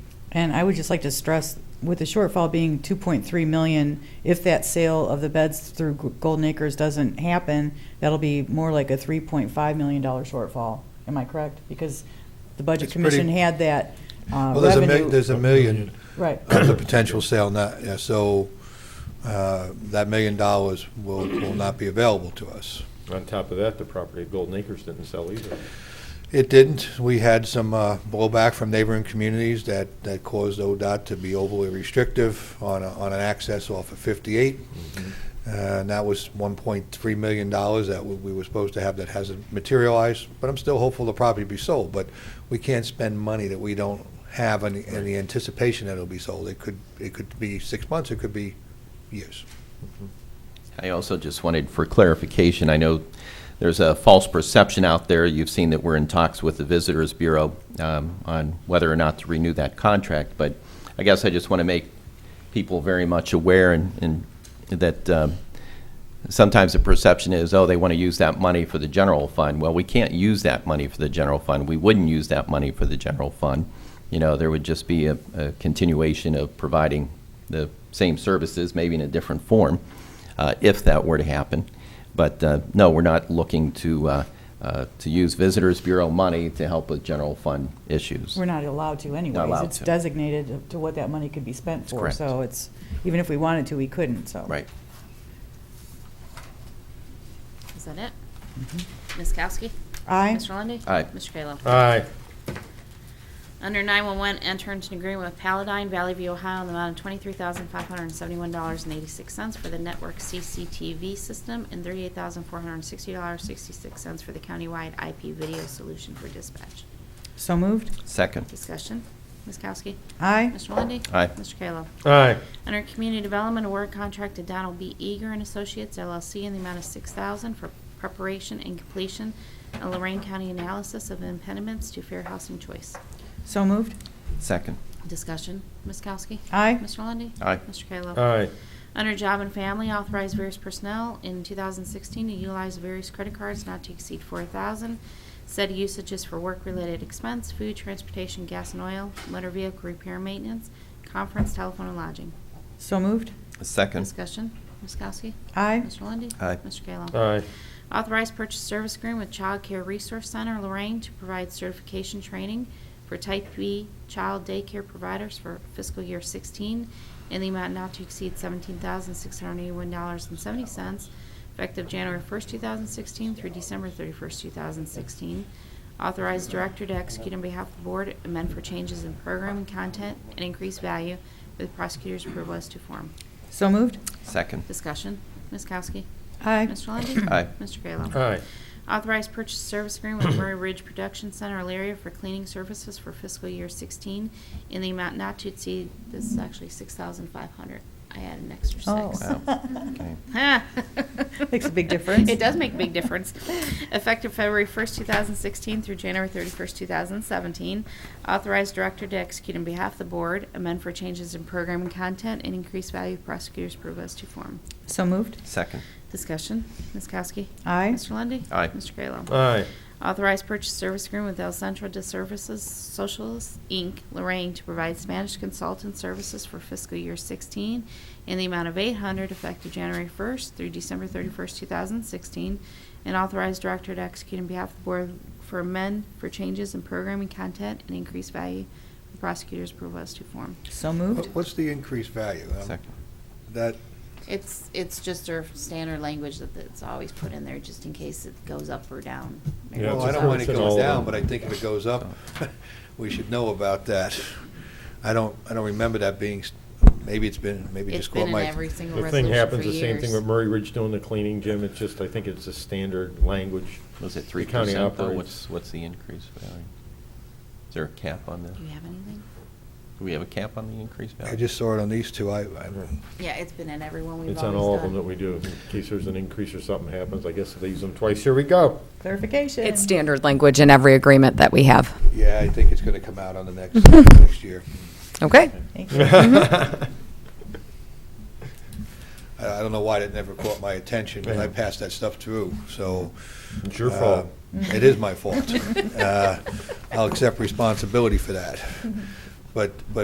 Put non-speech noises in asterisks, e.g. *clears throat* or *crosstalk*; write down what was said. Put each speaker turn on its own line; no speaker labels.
And I would just like to stress, with the shortfall being 2.3 million, if that sale of the beds through G- Golden Acres doesn't happen, that'll be more like a 3.5 million dollar shortfall. Am I correct? Because the Budget
It's pretty-
Commission had that uh,
Well, there's a, mi-
revenue.
there's a million
Right,
*clears throat* of the potential sale not, yeah, so, uh, that million dollars will, will not be available to us.
On top of that, the property at Golden Acres didn't sell either.
It didn't. We had some uh, blowback from neighboring communities that, that caused ODOT to be overly restrictive on, a- on an access off of 58. Uh, And that was $1.3 million that we- we were supposed to have that hasn't materialized. But I'm still hopeful the property be sold. But we can't spend money that we don't have in, the- in the anticipation that it'll be sold. It could, it could be six months, it could be years.
I also just wanted for clarification, I know there's a false perception out there. You've seen that we're in talks with the Visitors Bureau um, on whether or not to renew that contract, but I guess I just want to make people very much aware and- and that um, sometimes the perception is, oh, they want to use that money for the general fund. Well, we can't use that money for the general fund. We wouldn't use that money for the general fund. You know, there would just be a a continuation of providing the same services, maybe in a different form, uh, if that were to happen. But uh, no, we're not looking to, uh, uh, to use Visitors Bureau money to help with general fund issues.
we're not allowed to anyways.
allowed
It's
to.
designated to what that money could be spent
That's
for.
correct.
So it's, even if we wanted to, we couldn't, so.
Right.
Is that it? Ms. Kowski?
Aye.
Mr. Lundy.
Aye.
Mr. Kayla?
Aye.
Under 911, enter into an agreement with Paladine Valley View, Ohio, in the amount of $23,571.86 for the network CCTV system and $38,460.66 for the countywide IP video solution for dispatch.
So moved.
Second,
Discussion. Ms. Kowski?
Aye.
Mr. Lundy.
Aye.
Mr. Kayla?
Aye.
Under Community Development, award contract to Donald B. Eager and Associates LLC in the amount of $6,000 for preparation and completion of Lorraine County analysis of impediments to fair housing choice.
So moved.
second,
Discussion, Ms. Kowski?
Aye.
Mr. Lundy.
Aye.
Mr. Kayla?
Aye.
Under Job and Family, authorize various personnel in 2016 to utilize various credit cards not to exceed 4000 Said usage is for work-related expense, food, transportation, gas and oil, motor vehicle repair maintenance, conference, telephone, and lodging.
So moved.
second,
Discussion, Ms. Kowski?
Aye.
Mr. Lundy.
Aye.
Mr. Kayla?
Aye.
Authorized purchase service agreement with Child Care Resource Center Lorraine to provide certification training for type B child daycare providers for fiscal year 16 in the amount not to exceed $17,681.70, effective January 1st, 2016 through December 31st, 2016. Authorized director to execute on behalf of the board, amend for changes in program content and increased value with prosecutor's approval as to form.
So moved.
second,
Discussion. Ms. Kowski.
Aye.
Mr. Lundey.
Aye.
Mr. Kayla.
Aye.
Authorized purchase service agreement with Murray Ridge Production Center, Alaria for cleaning services for fiscal year 16 in the amount not to exceed, this is actually 6,500. I added an extra
Oh.
six.
Wow. Okay.
*laughs* Ha.
Makes a big difference.
It does make a big difference. Effective February 1st, 2016 through January 31st, 2017. Authorized director to execute on behalf of the board, amend for changes in program and content, and increase value of prosecutor's approval as to form.
So moved.
second,
Discussion. Ms. Kowski?
Aye.
Mr. Lundy.
Aye.
Mr. Kayla?
Aye.
Authorized purchase service agreement with El Centro de Services Socials, Inc., Lorraine, to provide Spanish consultant services for fiscal year 16 in the amount of 800 effective January 1st through December 31st, 2016, and authorized director to execute on behalf of the board for amend for changes in programming content and increased value for prosecutors' approval as to form.
So moved.
What's the increased value? Um,
second.
That,
It's, it's just our standard language that it's always put in there, just in case it goes up or down.
Yeah,
Well,
it's
I
a
don't want it
person
goes
all
down,
in.
but I think if it goes up, *laughs* we should know about that. I don't, I don't remember that being, s- maybe it's been, maybe
It's
just caught
been in
my.
every single
The thing
resolution for years.
happens, the same thing with Murray Ridge doing the cleaning, Jim, it's just, I think it's a standard language.
Was it
The
three
county
percent though?
operates-
What's, what's the increase value? Is there a cap on that?
Do you have anything?
Do we have a cap on the increase value?
I just saw it on these two, I, I,
Yeah, it's been in everyone we've always
It's
done.
on all of them that we do, in case there's an increase or something happens, I guess if they use them twice, here we go.
*laughs*
Clarification.
It's standard language in every agreement that we have.
yeah, I think it's gonna come out on the
*laughs*
next, next year.
Okay?
Thank you.
*laughs*
I, I don't know why that never caught my attention, because I
Yeah.
passed that stuff through, so.
It's your
uh,
fault.
It uh,
*laughs*
is my fault. Uh, I'll accept responsibility for that. But, but